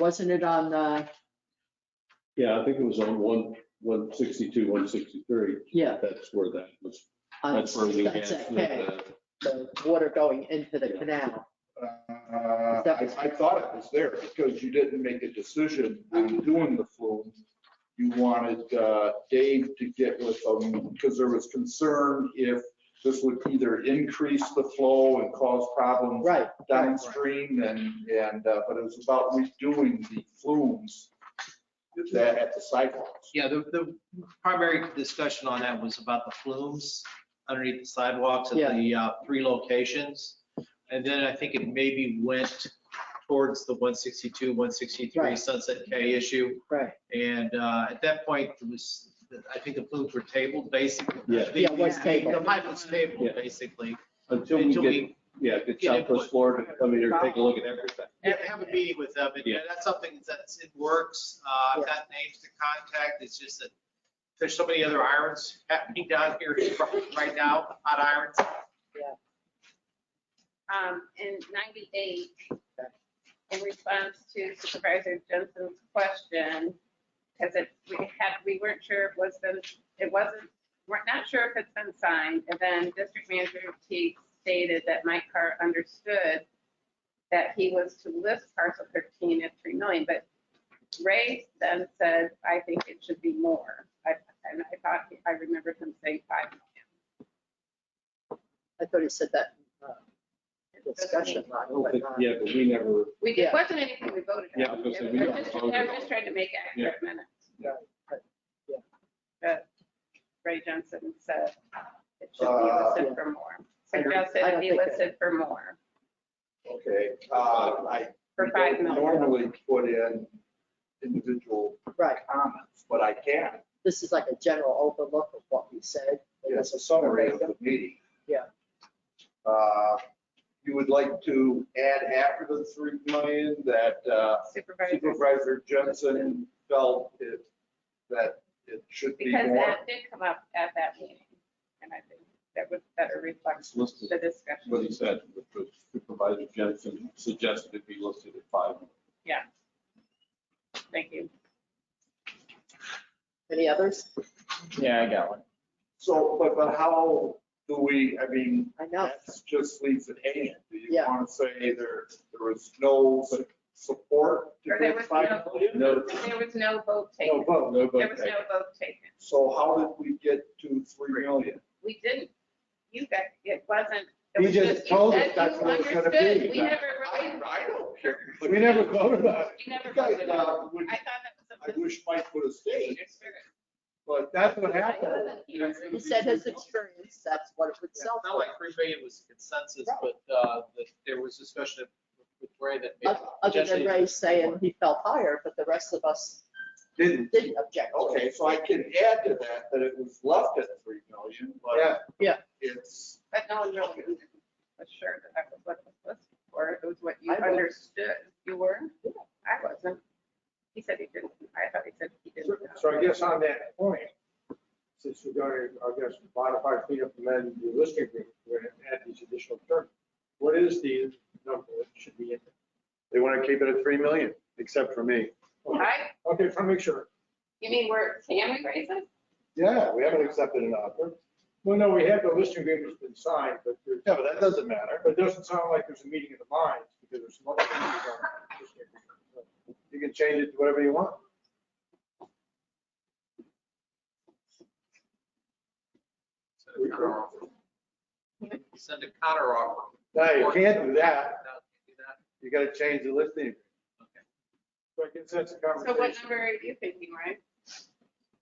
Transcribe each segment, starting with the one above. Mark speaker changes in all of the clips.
Speaker 1: Wasn't it on uh, the,
Speaker 2: Yeah, I think it was on one, one sixty-two, one sixty-three.
Speaker 1: yeah.
Speaker 2: That's where that was.
Speaker 1: on-
Speaker 2: That's where we uh, had
Speaker 1: That's that
Speaker 2: the-
Speaker 1: K, the water going into the
Speaker 2: Yeah.
Speaker 1: canal.
Speaker 3: Uh, I I thought it was there because you didn't make a decision on doing the flume. You wanted uh, Dave to get with them because there was concern if this would either increase the flow and cause problems
Speaker 1: Right, right,
Speaker 3: downstream and, and, uh, but it was about redoing the flumes that at the sidewalks.
Speaker 4: Yeah, the, the primary discussion on that was about the flumes underneath the sidewalks
Speaker 1: Yeah.
Speaker 4: at the uh, three locations. And then I think it maybe went towards the 162, 163
Speaker 1: Right.
Speaker 4: Sunset K issue.
Speaker 1: right.
Speaker 4: And uh, at that point, it was, I think the flumes were tabled, basically.
Speaker 2: Yeah.
Speaker 4: The-
Speaker 1: Yeah, it was
Speaker 4: The
Speaker 1: tabled.
Speaker 4: pipe was tabled,
Speaker 2: Yeah.
Speaker 4: basically.
Speaker 2: Until we
Speaker 4: Until
Speaker 2: get,
Speaker 4: we
Speaker 2: yeah, get
Speaker 4: get
Speaker 2: Southwest
Speaker 4: input.
Speaker 2: Florida to come in here and take a look at everything.
Speaker 4: have- have a meeting with them. And
Speaker 2: Yeah.
Speaker 4: that's something that's, it works. Uh, I've
Speaker 1: Yeah.
Speaker 4: got names to contact. It's just that there's so many other irons happening down here right now, hot irons.
Speaker 5: um, in ninety-eight, in response to Supervisor Jensen's question, because it, we had, we weren't sure if it was been, it wasn't, we're not sure if it's been signed, and then District Manager Teague stated that Mike Carr understood that he was to list parcel thirteen at three million, but Ray then said, I think it should be more. I, and I thought, I remembered him saying five million.
Speaker 1: I thought he said that in, uh,
Speaker 5: It doesn't
Speaker 1: discussion,
Speaker 2: I
Speaker 1: Ron,
Speaker 2: don't
Speaker 1: but uh,
Speaker 2: think,
Speaker 1: not-
Speaker 2: yeah, Oh, but we never,
Speaker 5: We,
Speaker 1: Yeah.
Speaker 5: it wasn't anything we voted on.
Speaker 2: Yeah, I was gonna say, we
Speaker 5: I'm
Speaker 2: never
Speaker 5: just-
Speaker 2: voted
Speaker 5: I'm
Speaker 2: on
Speaker 5: just
Speaker 2: it.
Speaker 5: trying to make accurate minutes.
Speaker 1: Yeah, but- yeah.
Speaker 5: But Ray Johnson said it should be
Speaker 3: Uh,
Speaker 1: yeah.
Speaker 5: listed for more.
Speaker 1: I don't-
Speaker 5: Suggested
Speaker 1: I
Speaker 5: it
Speaker 1: don't
Speaker 5: be
Speaker 1: think that-
Speaker 5: listed for more,
Speaker 3: Okay, uh, I
Speaker 5: for five million.
Speaker 3: normally put in individual
Speaker 1: Right,
Speaker 3: comments, but I can.
Speaker 1: this is like a general overlook of what we said. It
Speaker 3: It's
Speaker 1: was
Speaker 3: a summary of the meeting.
Speaker 1: Yeah.
Speaker 3: Uh, You would like to add after the 3 million that uh,
Speaker 5: Supervisors,
Speaker 3: Supervisor Jensen felt it, that it should be
Speaker 5: because
Speaker 3: more.
Speaker 5: that did come up at that meeting. And I think that would better reflect
Speaker 2: it's listed,
Speaker 5: the discussion.
Speaker 2: what he said, which was Supervisor Jensen suggested it be listed at five.
Speaker 5: Thank you.
Speaker 1: Any others?
Speaker 6: Yeah, I got one.
Speaker 3: So, but, but how do we, I mean,
Speaker 1: I know.
Speaker 3: that just leaves it hanging. Do you
Speaker 1: Yeah.
Speaker 3: want to say there, there was no su- support to
Speaker 5: Or there
Speaker 3: get
Speaker 5: was
Speaker 3: 5
Speaker 5: no-
Speaker 3: million?
Speaker 2: No,
Speaker 5: There was no vote
Speaker 3: No
Speaker 5: taken.
Speaker 3: vote.
Speaker 5: There was no vote taken.
Speaker 3: So how did we get to 3 million?
Speaker 5: We didn't, you guys, it wasn't. it
Speaker 7: You
Speaker 5: was
Speaker 7: just
Speaker 5: you
Speaker 7: told us
Speaker 5: said
Speaker 7: that's
Speaker 5: you
Speaker 7: what it's gonna
Speaker 5: understood.
Speaker 7: be.
Speaker 5: We never really,
Speaker 3: I don't care.
Speaker 7: We never voted on it.
Speaker 5: we never
Speaker 3: You guys,
Speaker 5: voted on it.
Speaker 3: uh, would-
Speaker 5: I thought that
Speaker 3: I
Speaker 5: was a
Speaker 3: wish Mike would have stayed, but
Speaker 7: That's what
Speaker 5: I
Speaker 7: happened.
Speaker 5: wasn't here.
Speaker 1: He said his experience, that's what it would sell
Speaker 4: It's not
Speaker 1: for.
Speaker 4: like three million was consensus, but uh, that there was discussion with Ray that. maybe-
Speaker 1: O- Other than Ray saying he felt higher, but the rest of us
Speaker 3: didn't.
Speaker 1: didn't object. to it.
Speaker 3: Okay, so I can add to that, that it was left at three million,
Speaker 7: Yeah.
Speaker 3: but
Speaker 1: Yeah.
Speaker 3: it's,
Speaker 5: But no one really was sure that that was what was listed for. It was what you
Speaker 1: I was.
Speaker 5: understood. You were?
Speaker 1: Yeah.
Speaker 5: I wasn't. He said he didn't. I thought he said he didn't. know.
Speaker 7: So I guess on that point, since we're going to, I guess, modify, clean up, amend the listing agreement, we're going to add these additional terms. What is the number that should be in
Speaker 8: They want to keep it at 3 million, except for me.
Speaker 7: there?
Speaker 5: I,
Speaker 7: Okay, just want to make sure.
Speaker 5: you mean where, can we raise it?
Speaker 8: Yeah, we haven't accepted an offer.
Speaker 7: Well, no, we have the listing agreement's been signed, but there's,
Speaker 8: Yeah, but that doesn't matter.
Speaker 7: but it doesn't sound like there's a meeting of the minds because there's some other things on the listing agreement.
Speaker 8: You can change it to whatever you want.
Speaker 4: Send a counteroffer. Send a counter offer.
Speaker 8: No, you can't do that. You got to change the listing.
Speaker 7: So I guess that's a
Speaker 5: So what
Speaker 7: conversation.
Speaker 5: number are you thinking, Ryan?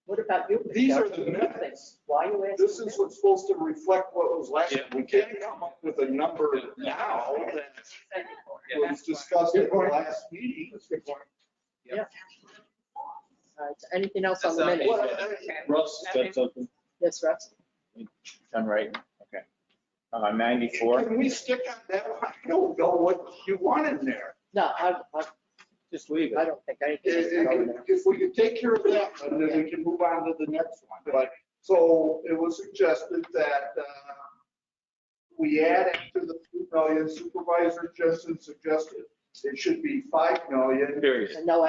Speaker 1: What about you?
Speaker 3: these are
Speaker 1: Michelle?
Speaker 3: the minutes.
Speaker 1: Why are you asking?
Speaker 3: This is
Speaker 1: me?
Speaker 3: what's supposed to reflect what was last, we can't come up with a number now that
Speaker 5: Said before.
Speaker 3: was discussed at the last meeting.
Speaker 7: That's a good point.
Speaker 1: All right, so Anything else on the
Speaker 4: That's
Speaker 1: minutes?
Speaker 4: not-
Speaker 3: What- uh,
Speaker 5: Okay.
Speaker 2: Russ said something.
Speaker 1: Yes, Russ?
Speaker 6: Done right, okay. Uh, 94,
Speaker 3: Can we stick on that one? I don't know what you want in there.
Speaker 1: No, I, I,
Speaker 6: just leave
Speaker 1: I
Speaker 6: it.
Speaker 1: don't think anything is going there.
Speaker 3: If if we could take care of that, and then we can move on to the next one. But, so it was suggested that uh, we add after the 3 million supervisor Justin suggested It should be 5 million.
Speaker 1: and no